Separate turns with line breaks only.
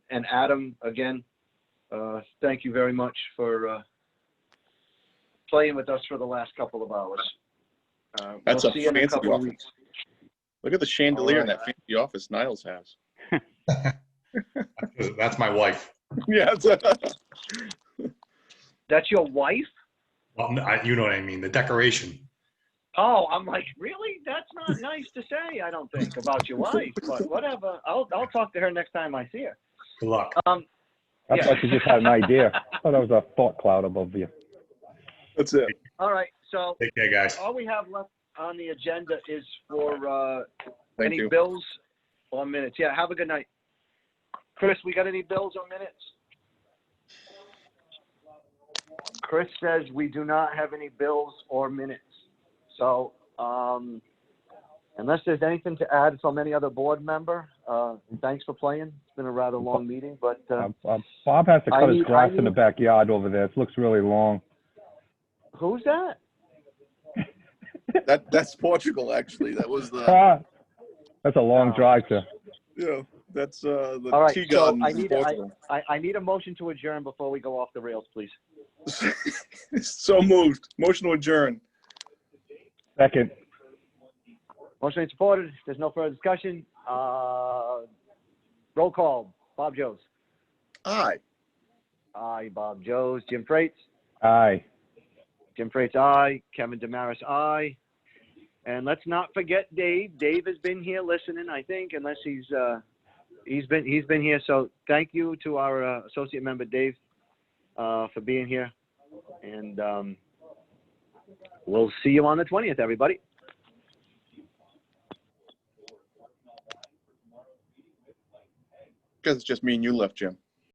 and Adam, again, uh, thank you very much for, uh, playing with us for the last couple of hours. Uh,
That's
we'll
a
see you in a
fancy
couple of
office.
weeks.
Look at the chandelier in
Alright.
that fancy office Niles has.
That's my wife.
Yeah, it's-
That's your wife?
Well, I- you know what I mean, the decoration.
Oh, I'm like, really? That's not nice to say, I don't think, about your wife, but whatever. I'll, I'll talk to her next time I see her.
Good luck.
Um,
I
Yeah.
thought you just had an idea. I thought that was a thought cloud above you.
that's it.
all right, so
Take care, guys.
all we have left on the agenda is for, uh,
Thank
any
you.
bills or minutes? Yeah, have a good night. Chris, we got any bills or minutes? Chris says we do not have any bills or minutes. So, um, unless there's anything to add from any other board member, uh, thanks for playing. It's been a rather long meeting, but, uh,
Um, um, Bob has to
I
cut his
need-
grass
I
in the
need-
backyard over there. It looks really long.
who's that?
That, that's Portugal, actually. That was the,
Ah, that's a long
Oh.
drive to.
you know, that's, uh, the
All right,
tea
so
gardens
I
in
need- I-
Portugal.
I, I need a motion to adjourn before we go off the rails, please.
So moved. Motion to adjourn.
Second,
Motion made, supported. If There's no further discussion. Uh, roll call. Bob Joes.
Aye.
Aye, Bob Joes. Jim Freites.
aye.
Jim Freites, aye. Kevin Damaris, aye. And let's not forget Dave. Dave has been here listening, I think, unless he's uh, he's been he's been here. So thank you to our uh, associate member Dave uh, for being here, and um, we'll see you on the twentieth, everybody.
Because it's just me and you left, Jim.